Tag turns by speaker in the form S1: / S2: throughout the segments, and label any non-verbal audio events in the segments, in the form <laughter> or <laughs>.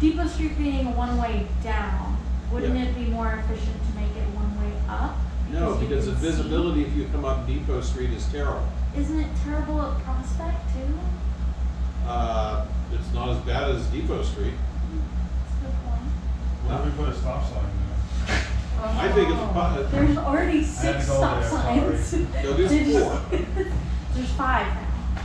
S1: Depot Street being a one-way down, wouldn't
S2: Yeah.
S1: it be more efficient to make it one-way up?
S2: No,
S1: you
S2: because the
S1: can see-
S2: visibility if you come up Depot Street is terrible.
S1: Isn't it terrible at Prospect too?
S2: Uh, it's not as bad as Depot Street.
S1: That's a good point.
S3: Why don't we put a stop sign there?
S2: I think it's po-
S1: Oh. There's already
S3: I had
S1: six
S3: to go
S1: stop
S3: there,
S1: signs.
S2: No, there's
S1: They just-
S2: four.
S1: <laughs> There's five now,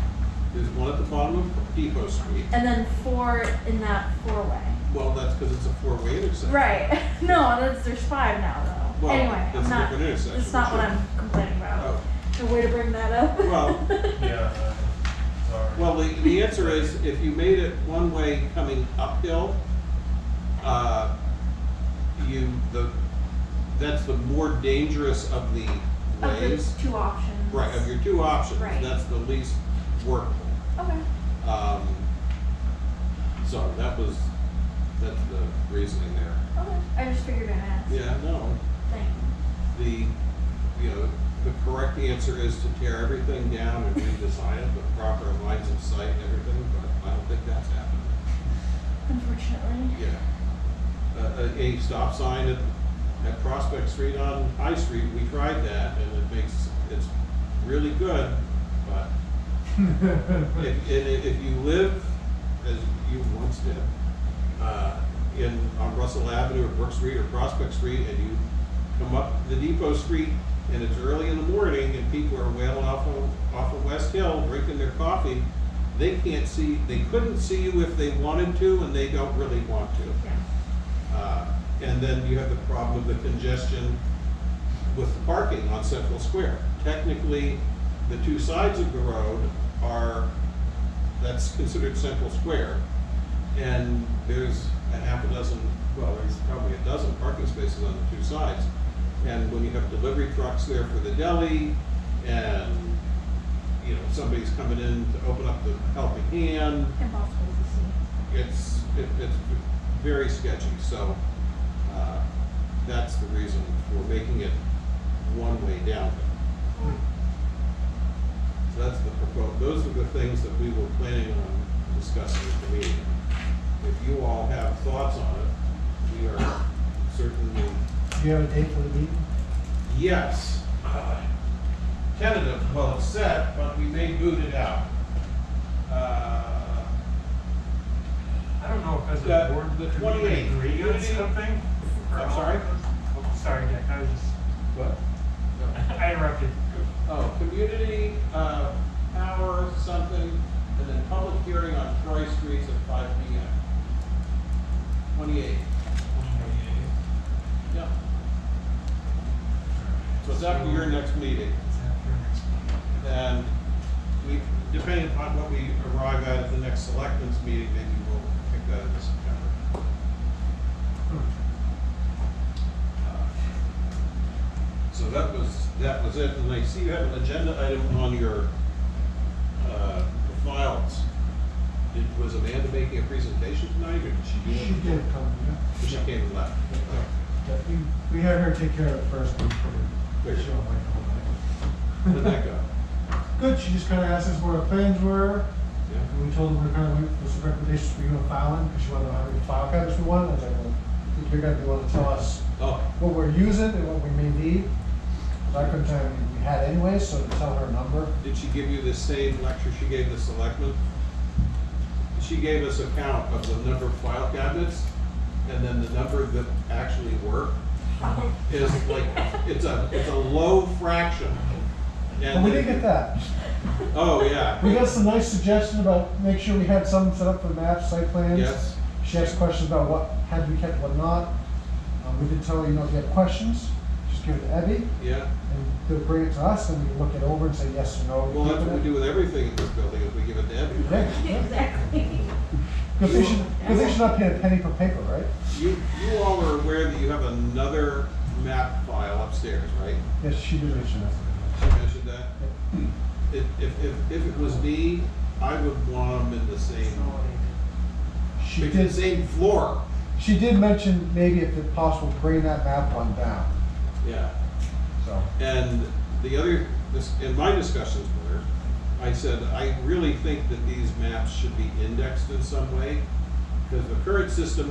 S2: There's one at the bottom of Depot Street.
S1: and then four in that four-way.
S2: Well, that's because it's a four-way intersection.
S1: Right. <laughs> No, that's, there's five now though.
S2: Well,
S1: anyway, I'm
S2: that's a
S1: not.
S2: different intersection,
S1: That's not
S2: but
S1: what
S2: sure.
S1: I'm complaining about.
S2: Oh.
S1: The way to bring that up. <laughs>
S2: Well,
S3: Yeah, uh, <laughs> sorry.
S2: Well, the, the answer is, if you made it one way coming uphill, uh, you, the, that's the more dangerous of the
S1: Of
S2: ways.
S1: those two options.
S2: Right, of your two options,
S1: Right.
S2: that's the least workable.
S1: Okay.
S2: Um, so that was, that's the reasoning there.
S1: Okay. I just figured I'd ask.
S2: Yeah, no,
S1: Thing.
S2: the, you know, the correct answer is to tear everything down and redesign it with proper lines of sight and everything, but I don't think that's happening.
S1: Unfortunately.
S2: Yeah. A, Uh, a, a stop sign at, at Prospect Street on High Street, we tried that and it makes, it's really good, but if, and if if you live, as you once did, uh, in, on Russell Avenue or Brook Street or Prospect Street, and you come up the Depot Street, and it's early in the morning, and people are wailing off of, off of West Hill, drinking their coffee, they can't see, they couldn't see you if they wanted to, and they don't really want to.
S1: Yeah.
S2: Uh, And then you have the problem of the congestion with the parking on Central Square. Technically, the two sides of the road are, that's considered Central Square. And there's a half a dozen, well, there's probably a dozen parking spaces on the two sides. And when you have delivery trucks there for the deli and, you know, somebody's coming in to open up the helping hand,
S1: Impossible to see.
S2: it's, it, it's very sketchy, so, uh, that's the reason for making it one way down. So that's the proposal, those are the things that we were planning on discussing at the meeting. If you all have thoughts on it, we are certainly,
S4: Do you have a date for the meeting?
S2: yes. uh, Tentative, well, it's set, but we may boot it out. Uh,
S5: I don't know if as
S2: The-
S5: a board,
S2: the
S5: could
S2: 28
S5: we agree on
S2: community-
S5: something? or
S2: I'm
S5: not?
S2: sorry?
S5: Oh, Sorry, Dick, I was just,
S2: What? No.
S5: <laughs> I interrupted.
S2: Oh, community, uh, power, something, and then public hearing on Troy Streets at five P M. Twenty-eight, yep. So it's after your next meeting,
S5: It's after next meeting.
S2: and we, depending upon what we arrive at at the next selectmen's meeting, maybe we'll pick that in September. Uh, So that was, that was it, and I see you have an agenda item on your, uh, files. Did, was Amanda making a presentation tonight, or did she do it?
S4: She did come, yeah.
S2: She came and left.
S4: Yeah, we- We had her take care of it first before
S2: Great.
S4: she went like the whole
S2: Where did
S4: night. <laughs>
S2: that go?
S4: Good, she just kind of asked us what our plans were,
S2: Yeah?
S4: and we told her we're kind of waiting for some recommendations for you on filing, because she wanted to know how many file cabinets we wanted. I was like, well, I think you're gonna be able to tell us
S2: Oh,
S4: what we're using and what we may need. 'Cause I couldn't tell you what we had anyway, so to tell her a number,
S2: did she give you the same lecture she gave the selectmen? She gave us a count of the number of file cabinets, and then the number that actually work is like, it's a, it's a low fraction.
S4: but
S2: And
S4: we did get that.
S2: Oh, yeah.
S4: We got some nice suggestion about, make sure we had some set up for maps, site plans.
S2: Yes.
S4: She asked questions about what had to be kept, what not. Um, we did tell her, you know, if you have questions, just give it to Abby,
S2: Yeah,
S4: and they'll bring it to us, and we can look it over and say yes or no.
S2: well, that's what we do with everything in this building, is we give it to everyone.
S1: <laughs> <laughs> Exactly.
S4: Because they should, because they should not pay a penny per paper, right?
S2: You, you all are aware that you have another map file upstairs, right?
S4: Yes, she did mention that.
S2: She mentioned that. If, if, if, if it was me, I would want them in the same,
S4: She
S2: in the
S4: did,
S2: same floor.
S4: she did mention maybe if it's possible, bring that map one down,
S2: Yeah.
S4: so.
S2: And the other, this, in my discussions with her, I said, I really think that these maps should be indexed in some way. Because the current system